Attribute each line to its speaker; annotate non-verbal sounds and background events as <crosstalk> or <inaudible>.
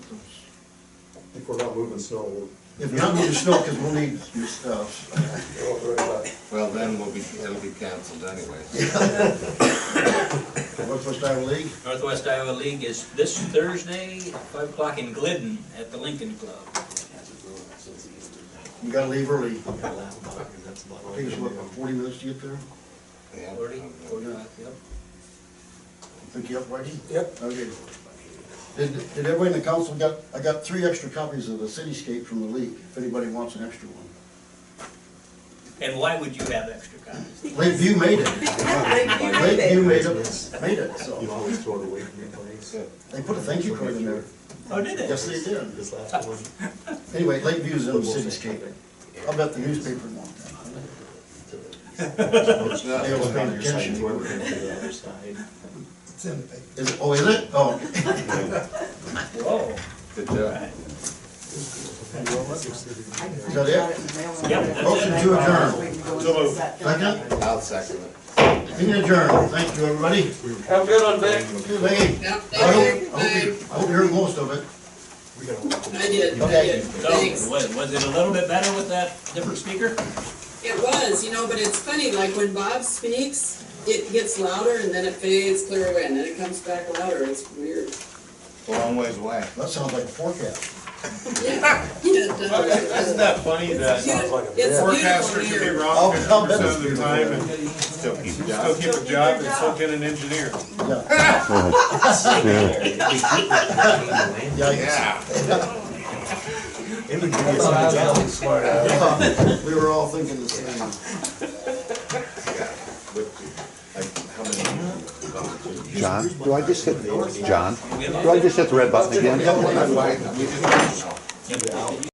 Speaker 1: If we're not moving snow, we'll
Speaker 2: If not, move the snow, because we'll need your stuff.
Speaker 1: we'll have to write back.
Speaker 3: Well, then we'll be, it'll be canceled anyway.
Speaker 2: Northwest Iowa League,
Speaker 4: Northwest Iowa League is this Thursday, five o'clock in Glidden at the Lincoln Club.
Speaker 2: we gotta leave early. Take us, what, about
Speaker 1: Well,
Speaker 2: forty minutes to get there?
Speaker 3: Yeah.
Speaker 4: Forty, forty-five, yep.
Speaker 2: Think you up, Reggie?
Speaker 1: Yep.
Speaker 2: Okay. Did, did everybody in the council got, I got three extra copies of the cityscape from the league, if anybody wants an extra one.
Speaker 4: And why would you have extra copies?
Speaker 2: Lakeview made <laughs> it. Lakeview made it, made it,
Speaker 1: You
Speaker 2: so.
Speaker 1: always throw it away from your place.
Speaker 2: They put a thank you card in there.
Speaker 4: Oh, did
Speaker 2: Yes, they did.
Speaker 1: This last one.
Speaker 2: Anyway, Lakeview's in the cityscape. I'll bet the newspaper won. They always pay attention to it.
Speaker 1: <laughs> the other side.
Speaker 2: Is it, oh, is it? Oh, okay.
Speaker 4: Whoa.
Speaker 3: Good job.
Speaker 2: Is that it?
Speaker 4: Yep.
Speaker 2: Motion to adjourn.
Speaker 5: Second?
Speaker 2: Second?
Speaker 3: I'll second it.
Speaker 2: Meeting adjourned. Thank you, everybody.
Speaker 6: Have a good one, Vic.
Speaker 2: Good day. I hope, I hope you- I hope you heard most of it.
Speaker 1: We gotta walk
Speaker 6: I did, I
Speaker 2: Okay.
Speaker 6: did.
Speaker 4: So,
Speaker 6: Thanks.
Speaker 4: was, was it a little bit better with that different speaker?
Speaker 6: It was, you know, but it's funny, like when Bob speaks, it gets louder and then it fades clear away and then it comes back louder. It's weird.
Speaker 3: Long ways away.
Speaker 2: That sounds like a forecast.
Speaker 6: <laughs> It's
Speaker 7: Isn't that funny that
Speaker 6: beautiful
Speaker 7: forecasters can be
Speaker 6: here.
Speaker 7: wrong
Speaker 2: I'll- I'll
Speaker 7: fifty
Speaker 2: bet
Speaker 7: percent of
Speaker 2: it's
Speaker 7: the time and
Speaker 3: Still keep the
Speaker 7: still
Speaker 3: job.
Speaker 7: keep a job and still get an engineer?
Speaker 2: Yeah. Yeah.
Speaker 3: Yeah.
Speaker 2: yeah. We were all thinking the same.
Speaker 3: With, like, how many?
Speaker 8: John, do I just hit, John, do I just hit the red button again?
Speaker 3: Yeah, well, that's why- we just-